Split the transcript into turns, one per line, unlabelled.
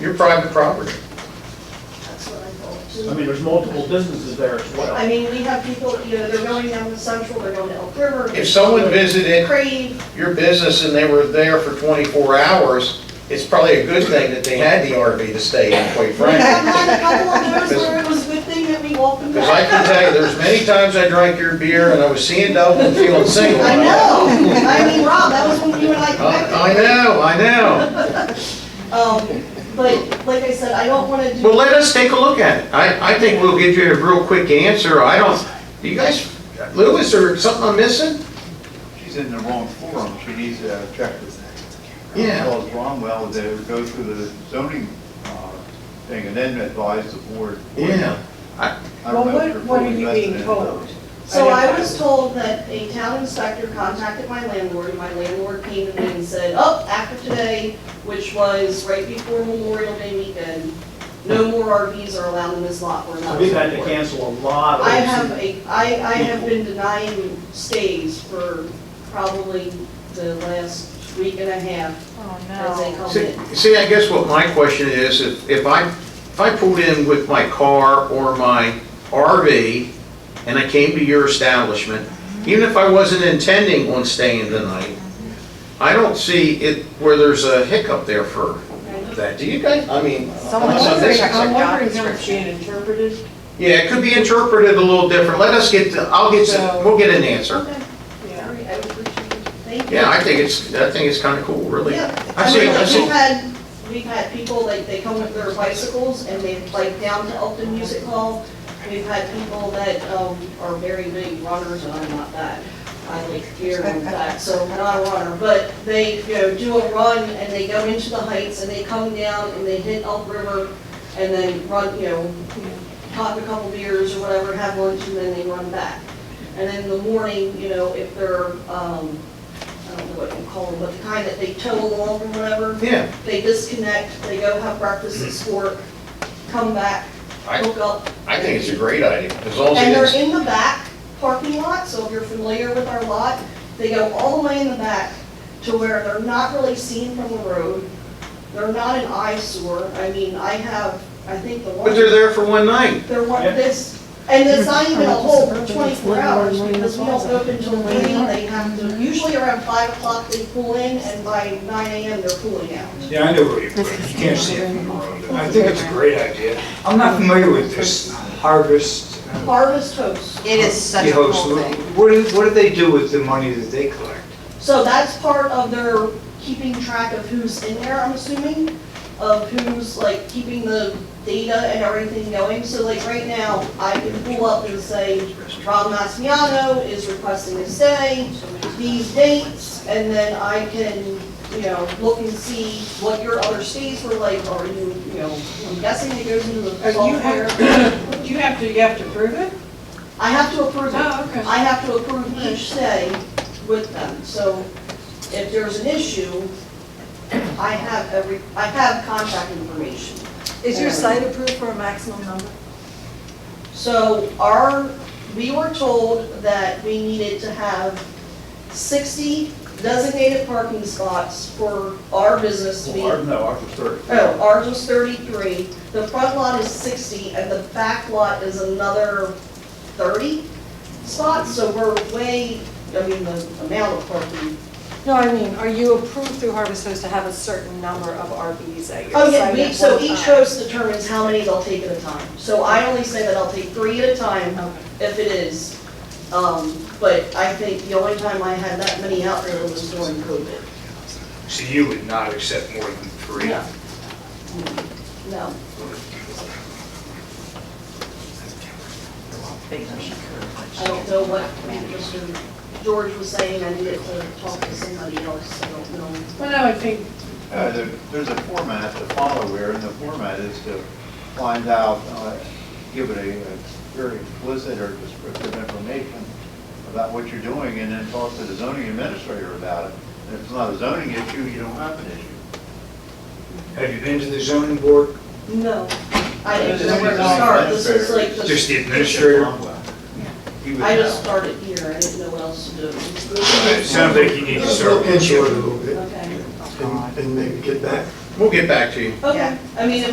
Your private property.
That's what I thought.
I mean, there's multiple businesses there as
I
well.
mean, we have people, you know, they're going down to Central, they're going to Elk River.
If someone visited
Crave,
your business and they were there for 24 hours, it's probably a good thing that they had the RV to stay in, quite
we have
frankly.
had a couple of those where it was a good thing that we walked them
Because I
back.
can tell you, there's many times I drank your beer and I was seeing double and feeling single. Uh,
I know, I mean, Rob, that was when you were like.
I I know, I know.
Um, but like I said, I don't wanna do.
Well, let us take a look at it. I, I think we'll give you a real quick answer. I don't, do you guys, Louis, or something I'm missing?
She's in the wrong forum, she needs to check with
Yeah.
Charles Bromwell to go through the zoning uh, thing and then advise the board. I
Well,
don't know
what,
if you're
what are
fully
you
vested in
being
it.
told?
So I was told that a town inspector contacted my landlord, and my landlord came to me and said, oh, after today, which was right before Memorial Day weekend, no more RVs are allowed in this lot, we're not.
We've had to cancel a lot of.
I have a, I, I have been denying stays for probably the last week and a half
Oh,
as they come
See,
in.
see, I guess what my question is, if, if I, if I pulled in with my car or my RV and I came to your establishment, even if I wasn't intending on staying the night, I don't see it where there's a hiccup there for that. Do you guys, I mean.
Someone-
so this-
I'm wondering how it's being interpreted.
Yeah, it could be interpreted a little different. Let us get, the- I'll get, some- we'll get an answer.
Okay, all
Yeah.
right, I appreciate it, thank you.
Yeah, I think it's, I think it's kind of cool, really.
Yeah,
I
I
see,
mean,
I
like,
see.
we've had, we've had people, like, they come with their bicycles and they, like, down to Elton Music Hall. We've had people that, um, are very big runners, and I'm not that. I like gear and that, so I'm not a runner, but they, you know, do a run and they go into the heights and they come down and they hit Elk River and then run, you know, pop a couple beers or whatever, have lunch, and then they run back. And then in the morning, you know, if they're, um, I don't know what you call them, but the kind that they tow along or whatever,
Yeah.
they disconnect, they go have breakfast at Sport, come back,
I-
hook up.
I think it's a great idea, as long
And
as
they're
it's,
in the back parking lot, so if you're familiar with our lot, they go all the way in the back to where they're not really seen from the road. They're not an eyesore. I mean, I have, I think the one.
but they're there for one night.
There weren't
Yeah.
this, and it's not even a whole twenty-four hours, because we don't open till late, they have to, usually around five o'clock they pull in, and by nine AM they're pulling out.
Yeah, I know where you're from. You can't see it from the road. I think it's a great idea. I'm not familiar with this harvest. uh,
Harvest host,
It is such a
the host.
cool thing.
What do, what do they do with the money that they collect?
so that's part of their keeping track of who's in there, I'm assuming, of who's like keeping the data and everything going, so like right now, I can pull up and say, Rob Massiano is requesting a stay, these dates, and then I can, you know, look and see what your other stays were like, or you, you know, I'm guessing it goes into the
Uh, you have-
software.
Do you have to, you have to prove it?
I have to approve it.
Oh, okay.
I have to approve each stay with them, so if there's an issue, I have every, I have contact information.
Is your site approved for a maximum number?
So our, we were told that we needed to have sixty designated parking spots for our business to be.
Well, our- No, ours was thirty.
Oh, ours was thirty-three, the front lot is sixty, and the back lot is another thirty spots, so we're way, I mean, the amount of parking.
No, I mean, are you approved through Harvest Host to have a certain number of RVs at your
Oh,
site?
yeah, we,
at
so
one
each
time?
host determines how many they'll take at a time, so I only say that I'll take three at a time
Okay.
if it is. Um, but I think the only time I had that many out there was during COVID,
So you would not accept more than three?
No. no. I don't know what Mr. George was saying, I needed to talk to somebody else, I don't know.
Well, no, I think
Uh, there- There's a format to follow here, and the format is to find out, uh, give it a a very explicit or descriptive information about what you're doing, and then talk to the zoning administrator about it. And if it's not a zoning issue, you don't have an issue.
Have you been to the zoning board?
No. I didn't know
Just
where to
design
start, this
better.
was like,
Just
the-
the administrator?
He would
I just
know.
started here, I didn't know what else to do.
It sounds like you need to start.
Let's look into it a little bit
Okay.
and and maybe get back
We'll get back to you.
Okay, I mean, if